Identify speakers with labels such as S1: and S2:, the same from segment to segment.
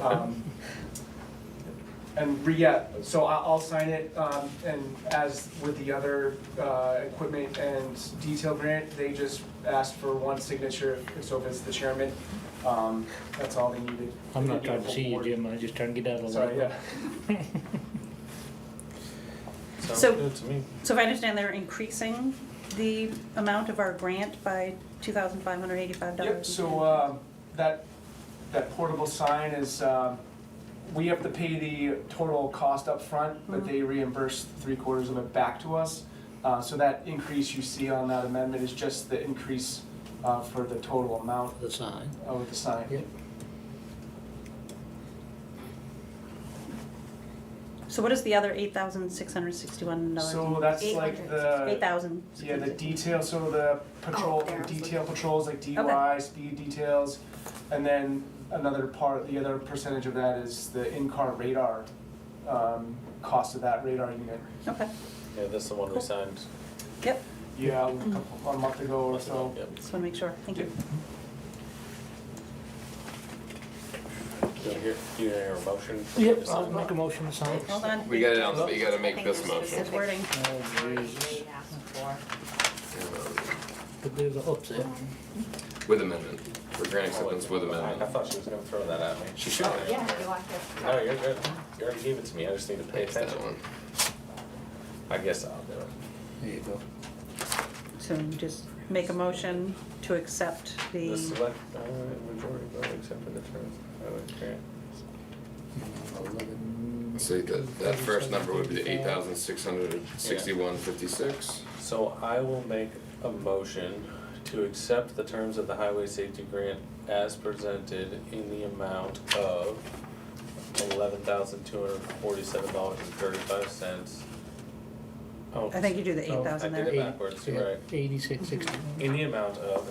S1: Um, And re, yeah, so I- I'll sign it, um, and as with the other uh, equipment and detail grant, they just asked for one signature, so if it's the chairman, um, that's all they needed.
S2: I'm not trying to see you, Jim, I'm just trying to get out of the
S1: Sorry,
S2: way.
S1: yeah.
S3: So-
S4: Good to me.
S3: So if I understand, they're increasing the amount of our grant by two thousand five hundred eighty-five dollars?
S1: Yep, so um, that, that portable sign is, um, we have to pay the total cost up front, but
S3: Mhm.
S1: they reimburse three quarters of it back to us. Uh, So that increase you see on that amendment is just the increase uh, for the total amount
S2: The sign.
S1: of the sign.
S2: Yep.
S3: So what is the other eight thousand six hundred sixty-one dollars?
S1: So that's like
S3: Eight
S1: the,
S3: thousand.
S1: yeah, the detail, so the patrol,
S5: there, I was
S1: detail patrols, like DUI, speed details. And then another part, the other percentage of that is the in-car radar, um, cost of that radar unit.
S3: Okay,
S4: Yeah, that's the one we
S3: Cool.
S4: signed.
S3: yep,
S1: Yeah, a couple, a month ago or so.
S4: Yep.
S3: just wanna make sure, thank you.
S4: Do you hear, do you hear a motion? for me
S2: Yep,
S4: to
S2: I'll
S4: sign?
S2: make a motion to sign.
S3: Hold on.
S6: We got it on, you gotta
S5: I
S6: make
S5: think
S6: this
S5: there's
S6: motion.
S3: It's wording,
S2: Oh, Jesus, but there's a hooks there.
S6: With amendment, for grant acceptance with
S4: I
S6: amendment.
S4: thought she was gonna throw that at me.
S6: She should have.
S5: Yeah, you want this?
S4: No, you're good. You already gave it to me. I just need to pay
S6: It's that
S4: attention.
S6: one.
S4: I guess I'll do it.
S2: There you go.
S3: so just make a motion to accept
S4: The
S3: the,
S4: select, uh, majority vote accepted the term. highway grant.
S6: So that, that first number would be eight thousand six hundred sixty-one fifty-six.
S4: So I will make a motion to accept the terms of the highway safety grant as presented in the amount of eleven thousand two hundred forty-seven dollars and thirty-five cents. Oh,
S3: I think you do the
S4: Oh,
S3: eight thousand
S4: I did
S3: there.
S4: it backwards, you're right.
S2: Eighty-six sixty.
S4: In the amount of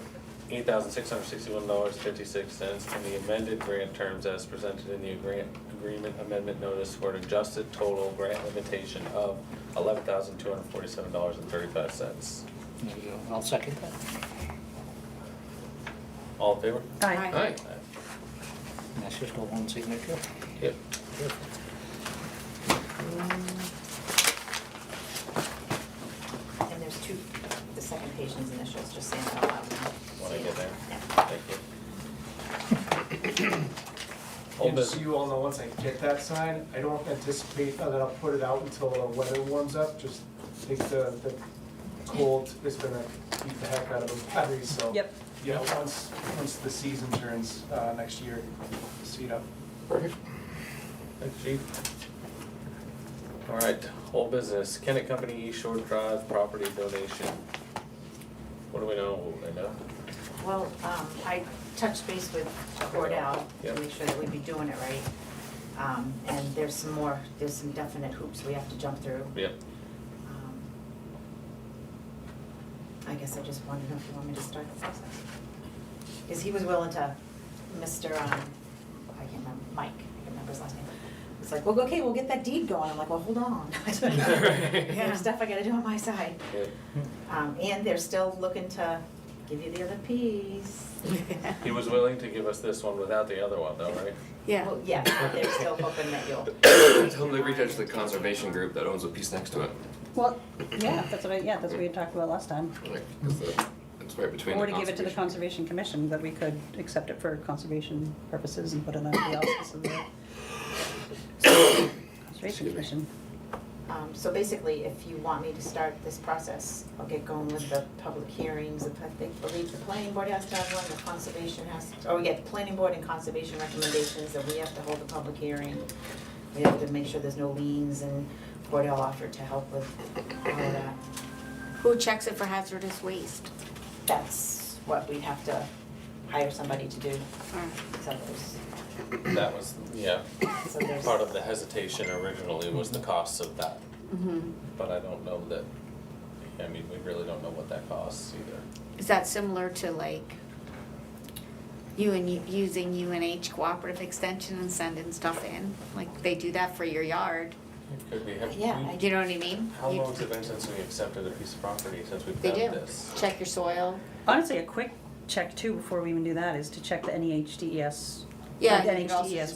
S4: eight thousand six hundred sixty-one dollars fifty-six cents and the amended grant terms as presented in the grant agreement amendment notice for an adjusted total grant limitation of eleven thousand two hundred forty-seven dollars and thirty-five cents.
S2: There you go, I'll second that.
S4: All in favor?
S3: Aye,
S6: Aye.
S2: And that's just a one signature.
S4: Yep.
S5: And there's two, the second patient's initials, just saying that out loud now.
S4: When I get there.
S5: Yeah.
S4: Thank you. Old Oh,
S1: And so
S4: business.
S1: you all know, once I get that sign, I don't anticipate that I'll put it out until the weather warms up, just think the, the cold is gonna beat the heck out of those batteries, so.
S3: yep,
S1: Yeah, once, once the season turns, uh, next year, speed up.
S6: Perfect.
S4: Thanks, chief. All right, old business, Kennet Company East Shore Drive property donation. What do we know? What do they know?
S5: Well, um, I touched base with Cordell to
S4: Yep.
S5: make sure that we'd be doing it right. Um, and there's some more, there's some definite hoops we have to jump through.
S4: Yep.
S5: Um, I guess I just wanted to know if you want me to start the process. Because he was willing to, Mr., um, I can't remember, Mike, I can't remember his last name. It's like, well, okay, we'll get that deed going. I'm like, well, hold on. There's stuff I gotta do on my side.
S4: Yep.
S5: Um, and they're still looking to give you the other piece.
S4: He was willing to give us this one without the other one though, right?
S7: Yeah.
S5: Well, yeah, they're still hoping that you'll.
S6: Tell them to reach out to the conservation group that owns a piece next to it.
S3: well, yeah, that's what I, yeah, that's what we had talked about last time.
S6: Like, 'cause the- it's right between the
S3: Or to give it to the
S6: conservation.
S3: Conservation Commission, that we could accept it for conservation purposes and put it under the auspices of the
S6: Excuse
S3: Conservation
S6: me.
S3: Commission.
S5: Um, so basically, if you want me to start this process, I'll get going with the public hearings, I think, believe the planning board has to have one, the conservation has, or we get the planning board and conservation recommendations, and we have to hold a public hearing. We have to make sure there's no liens, and Cordell offered to help with all of that.
S7: Who checks it for hazardous waste?
S5: That's what we'd have to hire somebody to do, so there's,
S4: That was, yeah,
S5: so there's.
S4: part of the hesitation originally was the cost of that.
S5: Mm-hmm.
S4: But I don't know that, I mean, we really don't know what that costs either.
S7: Is that similar to like UN, using UNH cooperative extension and sending stuff in? Like they do that for your yard,
S4: It could be, have
S5: Yeah,
S4: we-
S5: I-
S7: you know what I mean?
S4: Mm-hmm. How
S7: You-
S4: long's it been since we accepted a piece of property, since we've
S7: They
S4: done
S7: do,
S4: this?
S7: check your soil.
S3: Honestly, a quick check too, before we even do that, is to check the E NEHDES,
S7: Yeah,
S3: like
S7: you could also
S3: NHDES